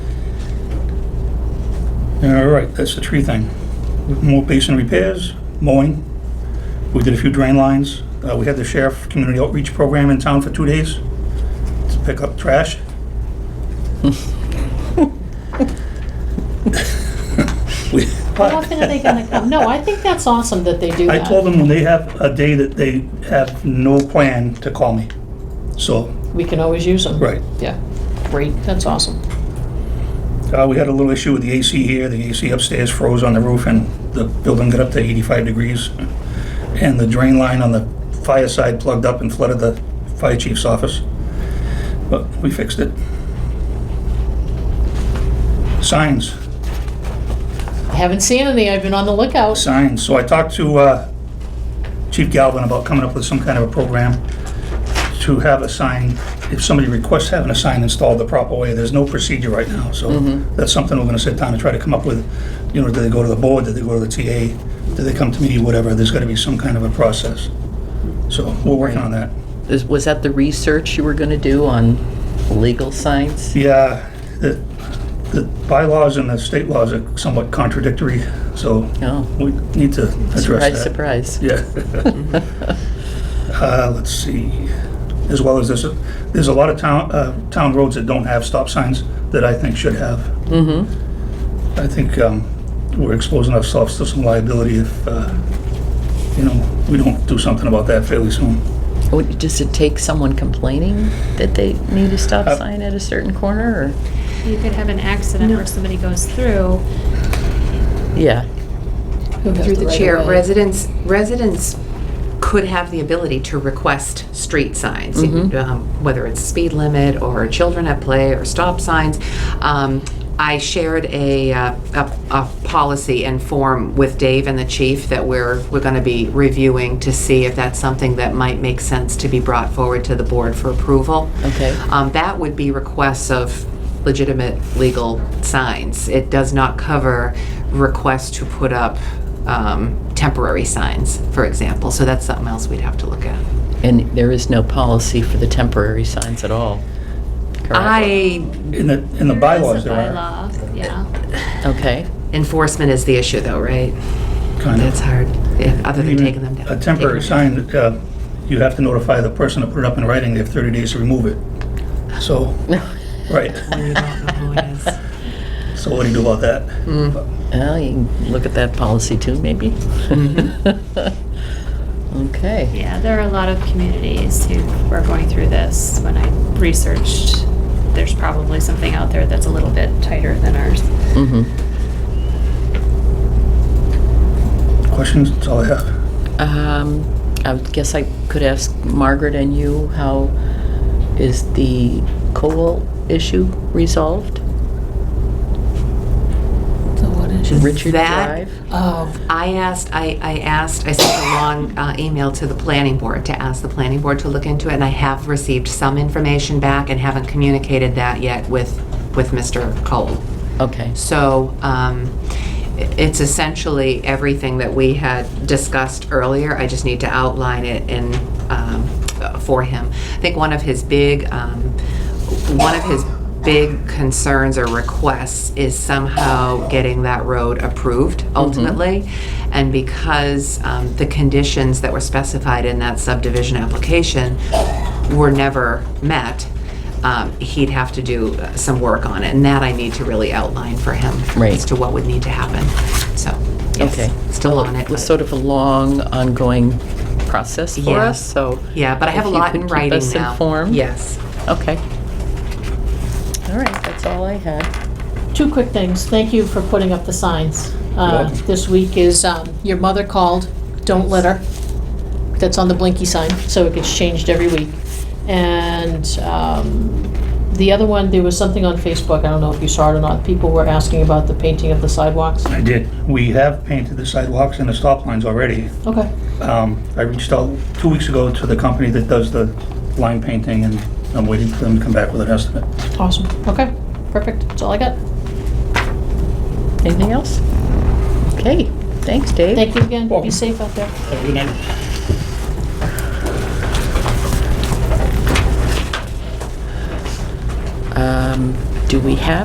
All right, that's the tree thing. More basin repairs, mowing. We did a few drain lines. Uh, We had the sheriff community outreach program in town for two days to pick up trash. We- How often are they gonna come? No, I think that's awesome that they do I that. told them when they have a day that they have no plan to call me. So, We can always use them. right. Yeah, great, that's awesome. Uh, we had a little issue with the AC here. The AC upstairs froze on the roof and the building got up to 85 degrees. And the drain line on the fire side plugged up and flooded the fire chief's office. But we fixed it. Signs, I haven't seen any, I've been on the lookout. signs. So I talked to uh, Chief Galvin about coming up with some kind of a program to have a sign, if somebody requests having a sign installed the proper way, there's no procedure right now, so that's something we're gonna sit down and try to come up with. You know, do they go to the board, do they go to the TA, do they come to me, whatever, there's gotta be some kind of a process. So, we're working on that. Is- Was that the research you were going to do on legal signs? Yeah, the, the bylaws and the state laws are somewhat contradictory, so No. we need to address that. Surprise, surprise. Yeah. Uh, Let's see, as well as this, there's a lot of town, uh, town roads that don't have stop signs that I think should have. Mm-hmm. I think um, we're exposing ourselves to some liability if, uh, you know, we don't do something about that fairly soon. Oh, Does it take someone complaining that they need a stop Uh, sign at a certain corner, You could have an accident where somebody goes through. or? Yeah. Through the chair, residents, residents could have the ability to request street signs, um, whether it's speed limit or children at play or stop signs. Um, I shared a, uh, a, a policy and form with Dave and the chief that we're, we're gonna be reviewing to see if that's something that might make sense to be brought forward to the board for approval. Okay. Um, that would be requests of legitimate legal signs. It does not cover requests to put up um, temporary signs, for example. So that's something else we'd have to look at. And there is no policy for the temporary signs at all? correct? I In the, in the bylaws there are, Bylaw, yeah. Okay, enforcement is the issue, though, right? kind That's of. hard. Yeah, other than Even taking them down. A temporary Taking them sign, uh, you have to notify the person to put it up in writing, they have 30 days to remove it. So, right, down. You don't know who it is. so what do you do about that? well, you can look at that policy too, maybe? Mm-hmm. Okay, Yeah, there are a lot of communities who are going through this. When I researched, there's probably something out there that's a little bit tighter than ours. mm-hmm. Questions, that's all I have. Um, I would guess I could ask Margaret and you, how is the coal issue resolved? Richard That- Drive? Oh, I asked, I, I asked, I sent a long uh, email to the planning board to ask the planning board to look into it, and I have received some information back and haven't communicated that yet with, with Mr. Cole. Okay, So um, i- it's essentially everything that we had discussed earlier. I just need to outline it in, um, uh, for him. I think one of his big, um, one of his big concerns or requests is somehow getting that road approved ultimately. And because um, the conditions that were specified in that subdivision application were never met, um, he'd have to do uh, some work on it, and that I need to really outline for him Right. as to what would need to happen. So, yes, Okay. still on it. it was but- sort of a long, ongoing process for Yeah. us, so. yeah, but I have if a you lot could in keep writing us now. informed. Yes. Okay. All right, that's all I had. Two quick things. Thank you for putting up the signs. Uh, welcome. This week is, um, your mother called, don't litter. That's on the blinky sign, so it gets changed every week. And um, the other one, there was something on Facebook, I don't know if you saw it or not, people were asking about the painting of the sidewalks. I did. We have painted the sidewalks and the stop lines already. Okay, Um, I reached out two weeks ago to the company that does the line painting, and I'm waiting for them to come back with an estimate. awesome. Okay, perfect. That's all I got. Anything else? Okay, thanks, Dave. Thank you again. Be Welcome. safe out there. Have a good night. Um, do we have